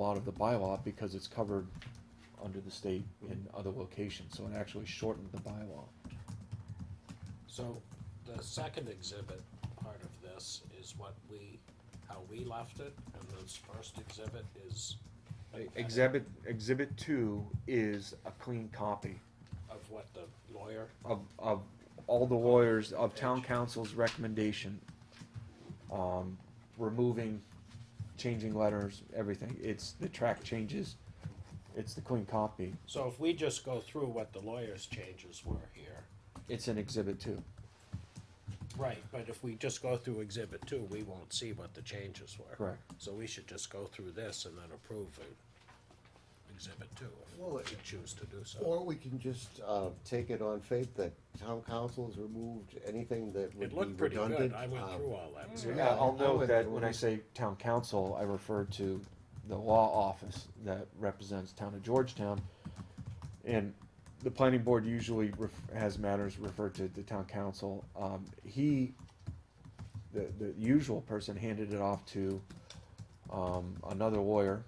lot of the bylaw because it's covered under the state in other locations, so it actually shortened the bylaw. So the second exhibit part of this is what we, how we left it, and this first exhibit is E, Exhibit, exhibit two is a clean copy of what the lawyer, of, of all the lawyers, of town council's recommendation. Um, removing, changing letters, everything, it's the track changes, it's the clean copy, so if we just go through what the lawyer's changes were here. it's in exhibit two. Right, but if we just go through exhibit two, we won't see what the changes were. Correct. So we should just go through this and then approve it, exhibit two, Well, if we it- choose to do so. Or we can just, uh, take it on faith that town council has removed anything that would It be looked pretty good, redundant. I went um, through all that. so- Yeah, I'll I note would- that when I say town council, I refer to the law office that represents town of Georgetown. And the planning board usually ref- has matters referred to the town council. Um, he, the, the usual person handed it off to, um, another lawyer.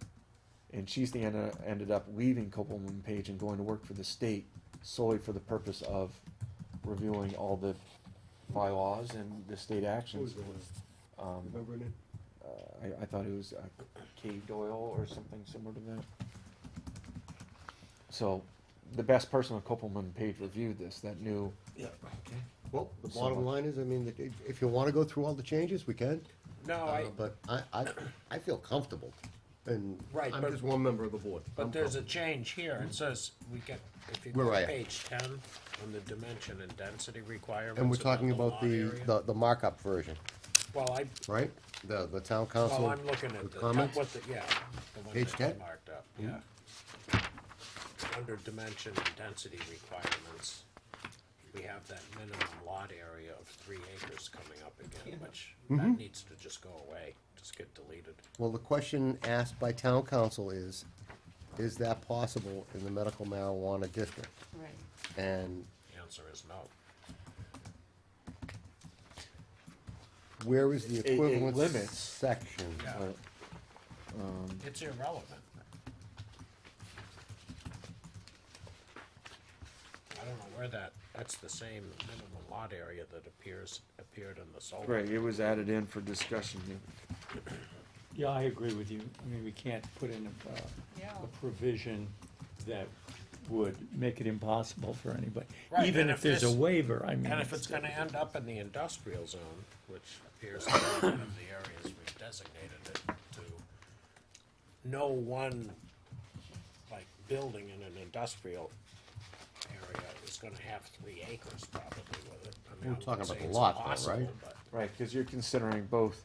And she's the, end ended up leaving Copeland and Page and going to work for the state solely for the purpose of reviewing all the bylaws and the state What was actions. the one? Um, Remember it? uh, I, I thought it was uh, caved oil or something similar to that. So, the best person on Copeland Page reviewed this that knew. Well, the So bottom much. line is, I mean, that if, if you wanna go through all the changes, we can. No, I, Uh, But I, I, I feel comfortable, and Right, I'm but- just one member of the board. I'm But there's a comfortable. change here, it says, we get, if you Where go are to you? page ten, on the dimension and density requirements. And we're talking about lot the, area. the, the markup version, Well, I, right? The, the town council. well, I'm looking at with the, comments? what the, yeah, the one Page Mm-hmm. that I 10? marked up, yeah. Under dimension and density requirements, we have that minimum lot area of three acres coming up again, which, Mm-hmm. that needs to just go away, just get deleted. Well, the question asked by town council is, is that possible in the medical marijuana district? Right. And The Answer is no. where is the It- it equivalent limits. section? Yeah. uh, It's irrelevant. I don't know where that, that's the same minimum lot area that appears, appered in the solar. Right, it was added in for discussion. Yeah, I agree with you. I mean, we can't put in a, Yeah. uh, a provision that would make it impossible for anybody. Right, Even and if if there's a this- waiver, I mean. And if it's gonna end up in the industrial zone, which appears to be one of the areas we've designated it to, no one, like, building in an industrial area is gonna have three acres probably with it. I mean, I We're wouldn't talking say about the it's lot though, impossible, right? but- Right, because you're considering both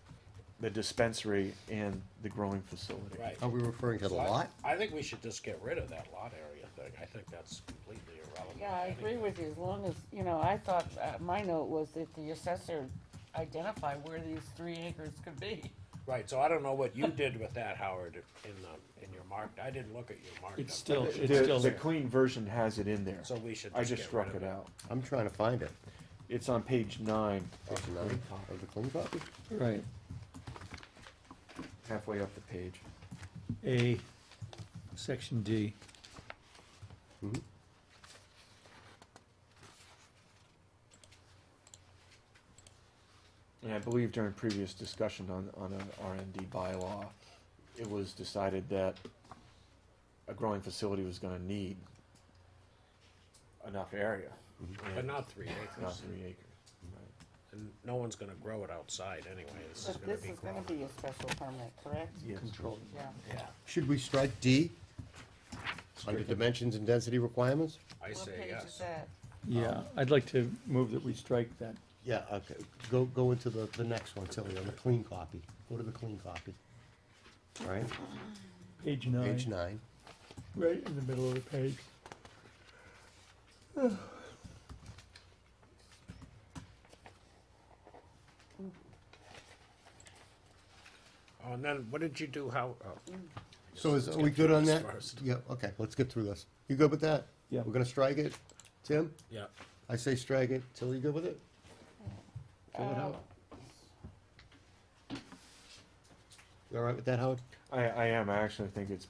the dispensary and the growing facility. Right. Are we referring to the So I- lot? I think we should just get rid of that lot area thing, I think that's completely irrelevant. Yeah, I agree with you, as long as, you know, I thought, uh, my note was that the assessor identify where these three acres could be. Right, so I don't know what you did with that, Howard, in the, in your mark, I didn't look at your mark. It's still, it's The, still the there. clean version has it in there. So we should I just just get rid struck of it it. out. I'm trying to find it. It's on page nine, Of the nine- of the clean copy? Right. halfway up the page. A, section D. And I believe during previous discussion on, on an RMD bylaw, it was decided that a growing facility was gonna need enough area. But not three Not acres, three acres. and no one's gonna grow it outside anyway, this is But gonna this be is gonna grown. be a special permit, correct? Yes. Um, Controlled. Yeah. Yeah, Should we strike D under Strike it. dimensions and density requirements? I What say page is yes. that? Yeah, I'd like to move that we strike that. Yeah, okay, go, go into the, the next one, Tilly, on the clean copy, go to the clean copy. All right, Page nine. page nine, Right in the middle of the page. Oh, and then, what did you do, how, oh, so is, are we Skip good on this that? first. Yeah, okay, let's get through this, you good with that? Yeah. We're gonna strike it, Tim, yeah, I say strike it, Tilly, you good with it? Fill it Uh, out. You all right with that, Howard? I, I am, I actually think it's